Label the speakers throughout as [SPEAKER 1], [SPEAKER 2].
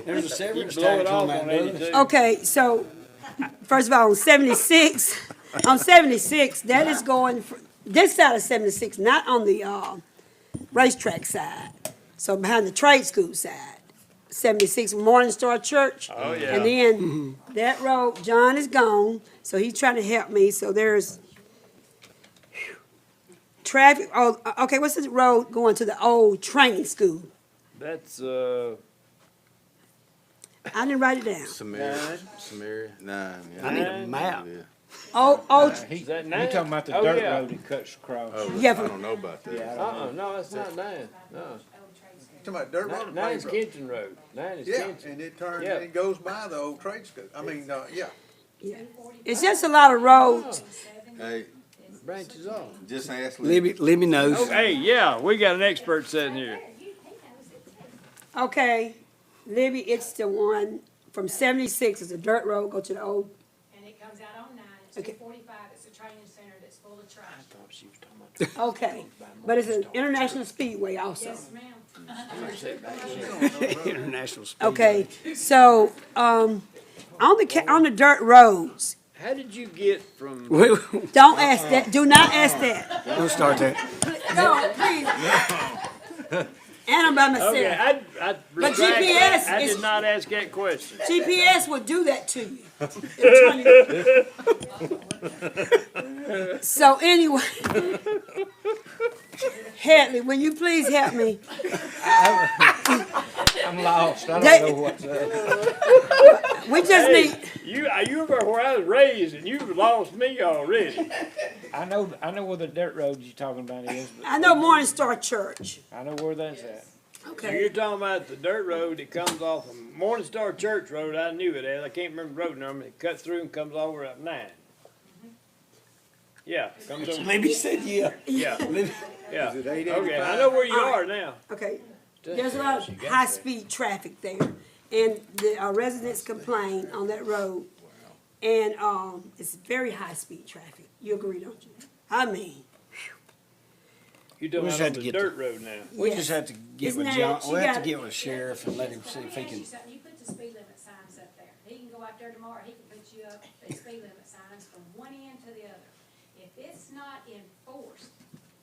[SPEAKER 1] There's a severance
[SPEAKER 2] blow it
[SPEAKER 1] tax on
[SPEAKER 2] off
[SPEAKER 1] that,
[SPEAKER 2] on
[SPEAKER 1] doesn't
[SPEAKER 2] 82.
[SPEAKER 1] there?
[SPEAKER 3] Okay, so, first of all, on seventy-six, on seventy-six, that is going, fr- this side of seventy-six, not on the, uh, racetrack side. So behind the trade school side, seventy-six Morning Star Church.
[SPEAKER 2] Oh, yeah.
[SPEAKER 3] And then that road, John is gone, so he's trying to help me, so there's traffic, oh, okay, what's this road going to the old training school?
[SPEAKER 2] That's, uh,
[SPEAKER 3] I didn't write it down.
[SPEAKER 4] Samaria, Samaria, nine. yeah.
[SPEAKER 1] I need a map.
[SPEAKER 4] Yeah.
[SPEAKER 3] Oh, oh,
[SPEAKER 2] is that
[SPEAKER 5] You
[SPEAKER 2] nine?
[SPEAKER 5] talking about the
[SPEAKER 2] Oh,
[SPEAKER 5] dirt
[SPEAKER 2] yeah.
[SPEAKER 5] road that cuts across?
[SPEAKER 1] Oh,
[SPEAKER 3] yeah,
[SPEAKER 4] I
[SPEAKER 3] from-
[SPEAKER 4] don't know about that.
[SPEAKER 2] Uh-uh, no, it's not nine, no.
[SPEAKER 6] Talking about dirt road,
[SPEAKER 2] Nine,
[SPEAKER 6] and
[SPEAKER 2] nine
[SPEAKER 6] paved
[SPEAKER 2] is
[SPEAKER 6] road.
[SPEAKER 2] Kenton Road, nine is
[SPEAKER 6] Yeah,
[SPEAKER 2] Kenton.
[SPEAKER 6] and it turns,
[SPEAKER 2] Yeah.
[SPEAKER 6] it goes by the old trade school, I mean, uh, yeah.
[SPEAKER 3] yeah. It's just a lot of roads.
[SPEAKER 4] Hey,
[SPEAKER 2] Branches off.
[SPEAKER 4] just ask Libby.
[SPEAKER 1] Libby, Libby knows.
[SPEAKER 2] Oh, hey, yeah, we got an expert sitting here.
[SPEAKER 3] Okay, Libby, it's the one from seventy-six, it's a dirt road, go to the old,
[SPEAKER 7] And it comes out on nine, it's
[SPEAKER 3] Okay.
[SPEAKER 7] two forty-five, it's a training center that's full of trash.
[SPEAKER 3] okay. But it's an international speedway also.
[SPEAKER 7] Yes, ma'am.
[SPEAKER 1] International speed.
[SPEAKER 3] Okay, so, um, on the, ca- on the dirt roads,
[SPEAKER 2] How did you get from,
[SPEAKER 1] Wait,
[SPEAKER 3] don't ask that, do not ask that.
[SPEAKER 1] don't start that.
[SPEAKER 3] No, please. And I'm by
[SPEAKER 2] okay,
[SPEAKER 3] myself.
[SPEAKER 2] I, I. retract
[SPEAKER 3] GPS
[SPEAKER 2] that. I
[SPEAKER 3] is-
[SPEAKER 2] did not ask that question.
[SPEAKER 3] GPS will do that to you. It'll turn you- So anyway, Hadley, will you please help me?
[SPEAKER 5] I'm lost, I
[SPEAKER 3] They-
[SPEAKER 5] don't know what's up.
[SPEAKER 3] We just
[SPEAKER 2] Hey,
[SPEAKER 3] need,
[SPEAKER 2] you, uh, you were where I was raised and you've lost me already.
[SPEAKER 5] I know, I know where the dirt road you're talking about is,
[SPEAKER 3] I know Morningstar Church.
[SPEAKER 5] but I know where that's at.
[SPEAKER 2] So you're talking about the dirt road that comes off of Morningstar Church Road, I knew it as, I can't remember the road number, it cuts through and comes over up nine. Yeah, comes over,
[SPEAKER 1] Libby said, yeah.
[SPEAKER 2] yeah,
[SPEAKER 1] Libby-
[SPEAKER 2] yeah,
[SPEAKER 6] Is it eight
[SPEAKER 2] okay, I
[SPEAKER 6] eighty-five?
[SPEAKER 2] know where you
[SPEAKER 3] All
[SPEAKER 2] are
[SPEAKER 3] right.
[SPEAKER 2] now.
[SPEAKER 3] Okay, there's a lot of high-speed traffic there, and the uh, residents complain on that road. And, um, it's very high-speed traffic. You agree, don't you? I mean,
[SPEAKER 1] We
[SPEAKER 2] You're talking
[SPEAKER 1] just
[SPEAKER 2] about on
[SPEAKER 1] had to
[SPEAKER 2] the
[SPEAKER 1] get the-
[SPEAKER 2] dirt road now.
[SPEAKER 1] We
[SPEAKER 3] Yes.
[SPEAKER 1] just have to get
[SPEAKER 3] It's
[SPEAKER 1] with
[SPEAKER 3] not-
[SPEAKER 1] John,
[SPEAKER 3] she
[SPEAKER 1] we have to
[SPEAKER 3] got it.
[SPEAKER 1] get with sheriff and let him see if he
[SPEAKER 7] Let me ask
[SPEAKER 1] can.
[SPEAKER 7] you something. You put the speed limit signs up there. He can go out there tomorrow, he can put you up, the speed limit signs from one end to the other. If it's not enforced,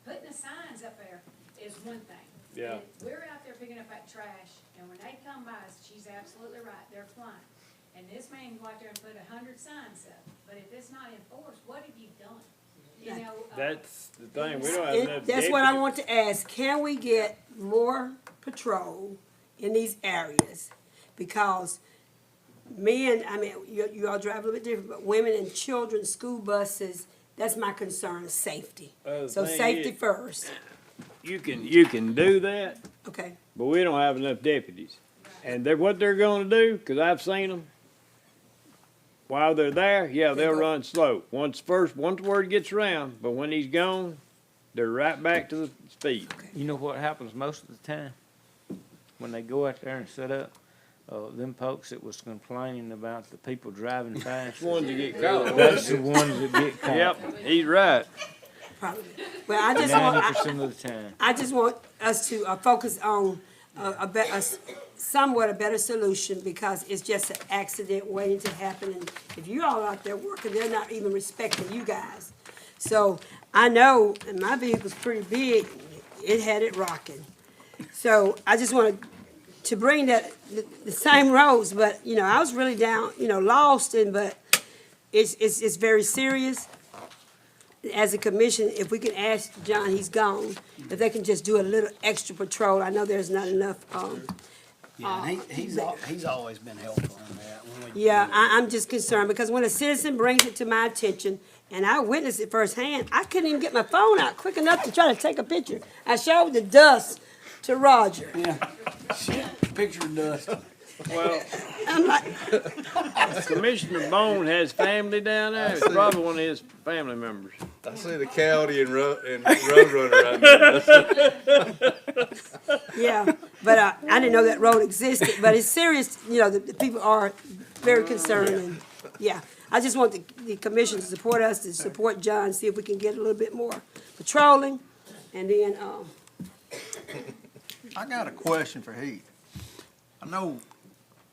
[SPEAKER 7] putting the signs up there is one thing.
[SPEAKER 2] Yeah.
[SPEAKER 7] And We're out there picking up that trash, and when they come by, she's absolutely right, they're flying. And this man can go out there and put a hundred signs up, but if it's not enforced, what have you done? You know. uh,
[SPEAKER 2] That's the thing, we don't have
[SPEAKER 3] It-
[SPEAKER 2] enough.
[SPEAKER 3] That's what I
[SPEAKER 2] deputies.
[SPEAKER 3] want to ask, can we get more patrol in these areas? Because men, I mean, you, you all drive a little bit different, but women and children, school buses, that's my concern, safety.
[SPEAKER 2] Uh, the
[SPEAKER 3] So
[SPEAKER 2] thing
[SPEAKER 3] safety
[SPEAKER 2] is-
[SPEAKER 3] first,
[SPEAKER 2] You can, you can do that,
[SPEAKER 3] okay?
[SPEAKER 2] but we don't have enough deputies. And they're, what they're gonna do, cause I've seen them, while they're there, yeah, they'll
[SPEAKER 3] go-
[SPEAKER 2] run slow. Once first, once word gets around, but when he's gone, they're right back to the speed.
[SPEAKER 5] You know what happens most of the time? When they go out there and set up, uh, them folks that was complaining about the people driving fast,
[SPEAKER 2] Ones that get caught.
[SPEAKER 5] that's the ones that get caught.
[SPEAKER 2] Yep, he's right.
[SPEAKER 3] Probably. Well, I just want,
[SPEAKER 5] Ninety
[SPEAKER 3] I,
[SPEAKER 5] percent of the time.
[SPEAKER 3] I just want us to uh, focus on a, a be- a s- somewhat a better solution because it's just an accident waiting to happen. And if you all out there working, they're not even respecting you guys. So I know, and my vehicle's pretty big, it had it rocking. So I just wanted to bring that, the, the same roads, but, you know, I was really down, you know, lost and, but it's, it's, it's very serious as a commission, if we can ask John, he's gone, if they can just do a little extra patrol, I know there's not enough, um,
[SPEAKER 1] Yeah, and he, he's, al- he's always been helpful on that. when we-
[SPEAKER 3] Oh. yeah, I, I'm just concerned, because when a citizen brings it to my attention, and I witnessed it firsthand, I couldn't even get my phone out quick enough to try to take a picture. I showed the dust to Roger,
[SPEAKER 1] Picture dust.
[SPEAKER 2] Well,
[SPEAKER 3] I'm like,
[SPEAKER 2] Commissioner Bone has family down there, it's probably one of his family members.
[SPEAKER 4] I see the county and road and road runner out there.
[SPEAKER 3] yeah, but I, I didn't know that road existed, but it's serious, you know, the, the people are very concerned, and, yeah. I just want the, the commission to support us, to support John, see if we can get a little bit more patrolling, and then, um,
[SPEAKER 6] I got a question for Heath. I know